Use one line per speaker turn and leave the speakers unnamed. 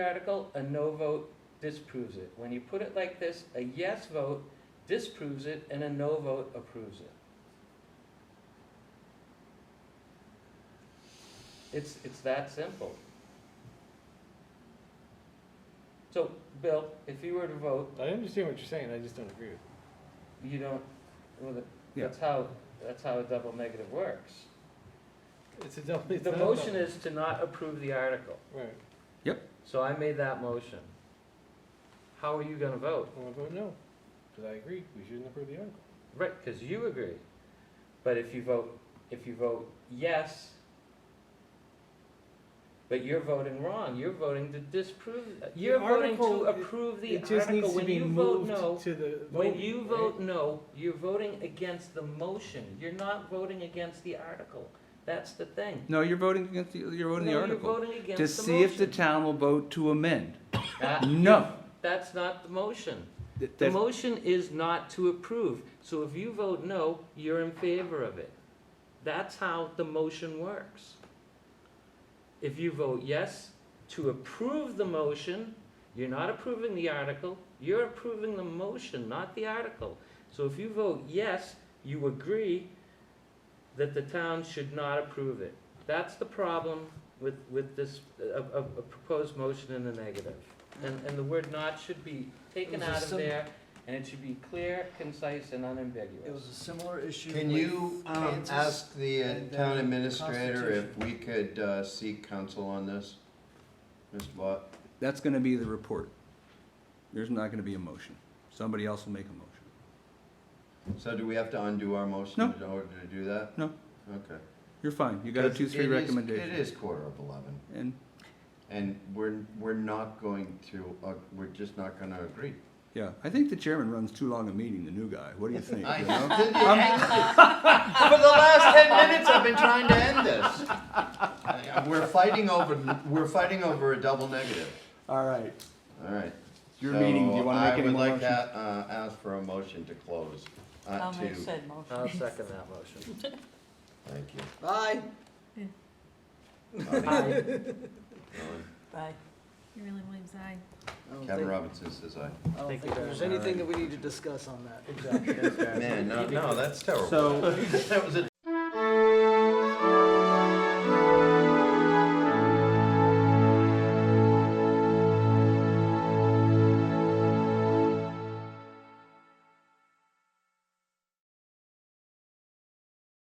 article, a no vote disproves it. When you put it like this, a yes vote disproves it and a no vote approves it. It's, it's that simple. So, Bill, if you were to vote,
I understand what you're saying, I just don't agree with it.
you don't, well, that- that's how, that's how a double negative works.
It's a double, it's
The
not a
motion
double-
is to not approve the article,
Right,
so I made that motion. How are you gonna vote?
I'm gonna vote no, because I agree, we shouldn't approve the article.
Right, because you agree. But if you vote, if you vote yes, but you're voting wrong, you're voting to disprove, you're voting to
article-
approve the
It just needs
article.
to
When
be
you vote
moved
no,
to the
when
voting,
you
right?
vote no, you're voting against the motion. You're not voting against the article. That's the thing.
No, you're voting against, the- you're voting the
No,
article.
You're voting
To
against the
see if the
motion.
town will vote to amend.
That-
No.
That's not the motion.
That-
The
that's-
motion is not to approve, so if you vote no, you're in favor of it. That's how the motion works. If you vote yes to approve the motion, you're not approving the article, you're approving the motion, not the article. So if you vote yes, you agree that the town should not approve it. That's the problem with, with this, a, a a proposed motion in the negative. And, and the word not should be taken
It was a
out of
sim-
there, and it should be clear, concise, and
It
unambiguous.
was a similar issue.
Can
with
you um,
Kansas.
ask the uh,
and, uh,
town administrator if
Constitution.
we could uh, seek counsel on this? Mr. Bott?
That's gonna be the report. There's not gonna be a motion. Somebody else will make a motion.
So do we have to undo our
No.
motion in order to do that?
No.
Okay.
You're fine. You got a
Because
two, three
it is- It
recommendation.
is quarter of eleven,
And,
and we're, we're not going to, uh, we're just not gonna agree.
yeah, I think the chairman runs too long a meeting, the new guy. What do you think?
I-
you know?
For the last ten minutes, I've been trying to end this. I- We're fighting over, we're fighting over a double negative,
All right,
all right.
your meeting, do you wanna make any more
So I would like
motions?
to uh, ask for a motion to close. uh,
I'll make
to-
said motion.
I'll second that motion.
Thank you.
Aye.
Aye.
Aye.
Aye.
Bye.
Marilyn Williams, aye.
I don't
Kevin
think-
Robinson says aye.
I don't
Thank
think
you.
there's anything that we need to discuss on that.
Man, no, no, that's terrible.
So,
That was a